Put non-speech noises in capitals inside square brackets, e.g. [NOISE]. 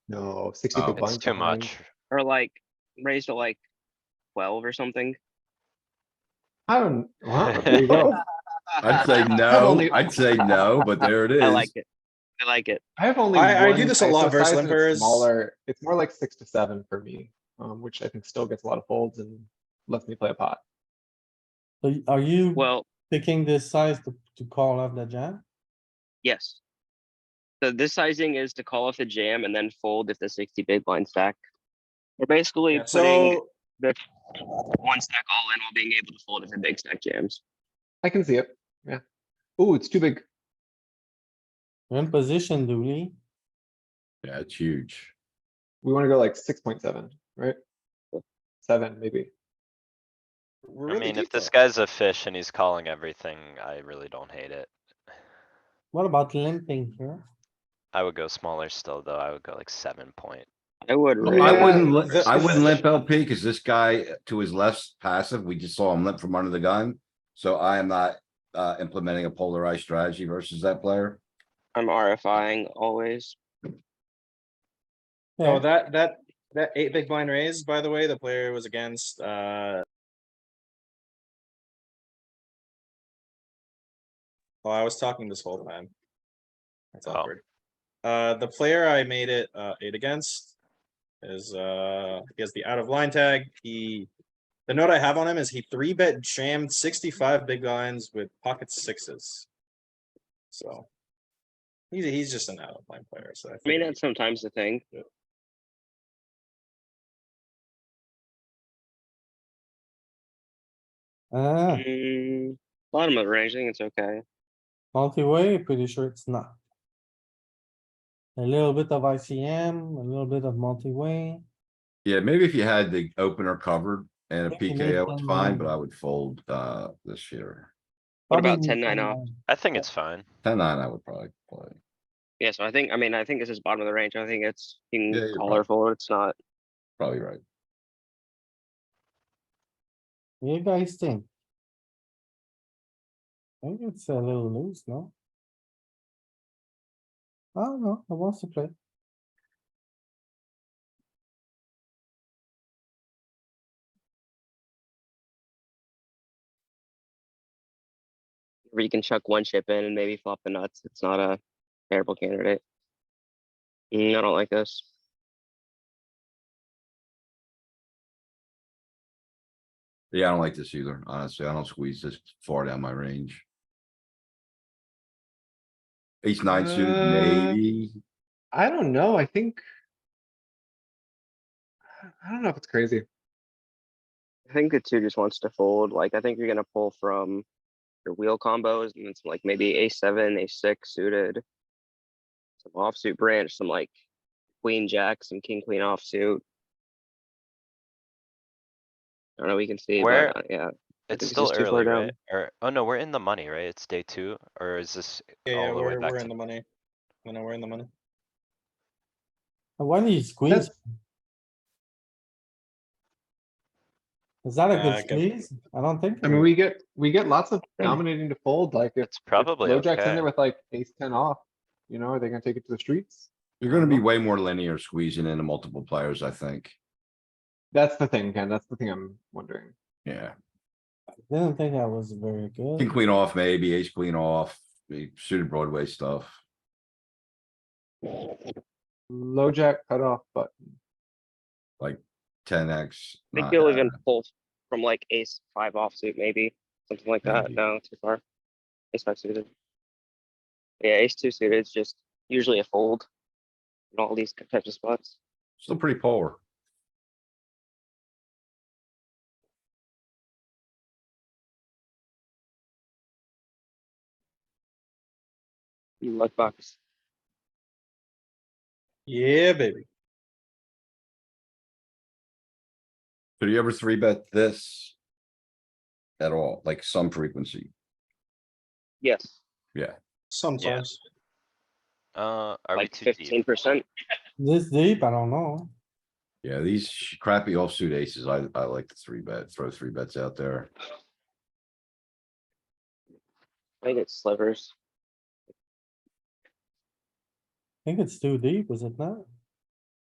No, sixty Oh. to It's one. It's too behind. much. or like raised to like twelve or something. I don't, [LAUGHS] wow, there you go. I'd [LAUGHS] say no, only- I'd say no, but there it I like is. it. I like it. I have only. I- I do one this a lot ISO versus size and it's limbers. Smaller, it's more like six to seven for me, um, which I think still gets a lot of folds and lets me play a pot. So y- Are you Well, picking this size to, to call off the jam? yes. So this sizing is to call off the jam and then fold if the sixty big blind stack. We're basically putting So, the one stack all in while being able to fold if the big stack jams. I can see it, yeah. Ooh, it's too big. You're in position, Dooley. Yeah, it's huge. We wanna go like six point seven, right? Seven, maybe. we're I really mean, if deep this though. guy's a fish and he's calling everything, I really don't hate it. What about limping here? I would go smaller still, though. I would go like seven point. I would. I raise- Yeah, wouldn't, li- this I is- wouldn't limp LP because this guy to his left's passive, we just saw him limp from under the gun. So I am not uh implementing a polarized strategy versus that player. I'm RFIing always. No, Oh, Yeah. that, that, that eight big blind raise, by the way, the player was against, uh. Well, Oh, I was talking this whole time. That's Oh. awkward. Uh, the player I made it, uh, eight against is, uh, he has the out of line tag. He, the note I have on him is he three bet jammed sixty-five big blinds with pocket sixes. So. He's, he's just an out of line player, so. I mean, figured- that's sometimes the thing. Ah, Mm, Bottom of the range, I think it's okay. multi-way, pretty sure it's not. A little bit of ICM, a little bit of multi-way. Yeah, maybe if you had the opener covered and a Think you need PKO, it's some, fine, um, but I would fold uh this year. What about Probably 10-9 off? 10-9. I think it's fine. Ten nine, I would probably play. Yeah, so I think, I mean, I think this is bottom of the range. I think it's, you Yeah, can you're call prob- or fold. It's not. Probably right. What do You guys think? I think it's a little loose, no? I don't know, I want to play. where you can chuck one chip in and maybe flop the nuts. It's not a terrible candidate. Mm, I don't like this. Yeah, I don't like this either. Honestly, I don't squeeze this far down my range. Ace nine suit, Uh, maybe. I don't know, I think. I- I don't know if it's crazy. I think the two just wants to fold. Like I think you're gonna pull from your wheel combos and it's like maybe a seven, a six suited, some offsuit branch, some like queen jack, some king queen offsuit. I don't know. We can see. but, Where- uh, yeah, I It's think it's still just too far early, down. right? Or, oh no, we're in the money, right? It's day two, or is this Yeah, yeah, all the way we're, back we're to in the money. You know, we're in the money. And Why do you squeeze? Is that a Uh, good good. squeeze? I don't think. I so. mean, we get, we get lots of dominating to fold, like if. It's probably LoJack's in okay. there with like ace ten off, you know, are they gonna take it to the streets? You're gonna be way more linear squeezing into multiple players, I think. That's the thing, Ken, that's the thing I'm wondering. Yeah, Didn't think I was very king good. queen off, maybe ace queen off, the suited Broadway stuff. Low jack cutoff, but Ten X. I think you'll even pull from like ace five offsuit, maybe something like that. Maybe. No, too far. Ace five suited. Yeah, ace two suited is just usually a fold in all these types of spots. Still pretty polar. You luck box. Yeah, baby. Do you ever three bet this? At all, like some frequency? Yes, Sometimes. Uh, are we like too deep? fifteen percent. This deep, I don't know. Yeah, these sh- crappy offsuit aces, I, I like the three bet, throw three bets out there. I think it's slivers. I think it's too deep, is it not?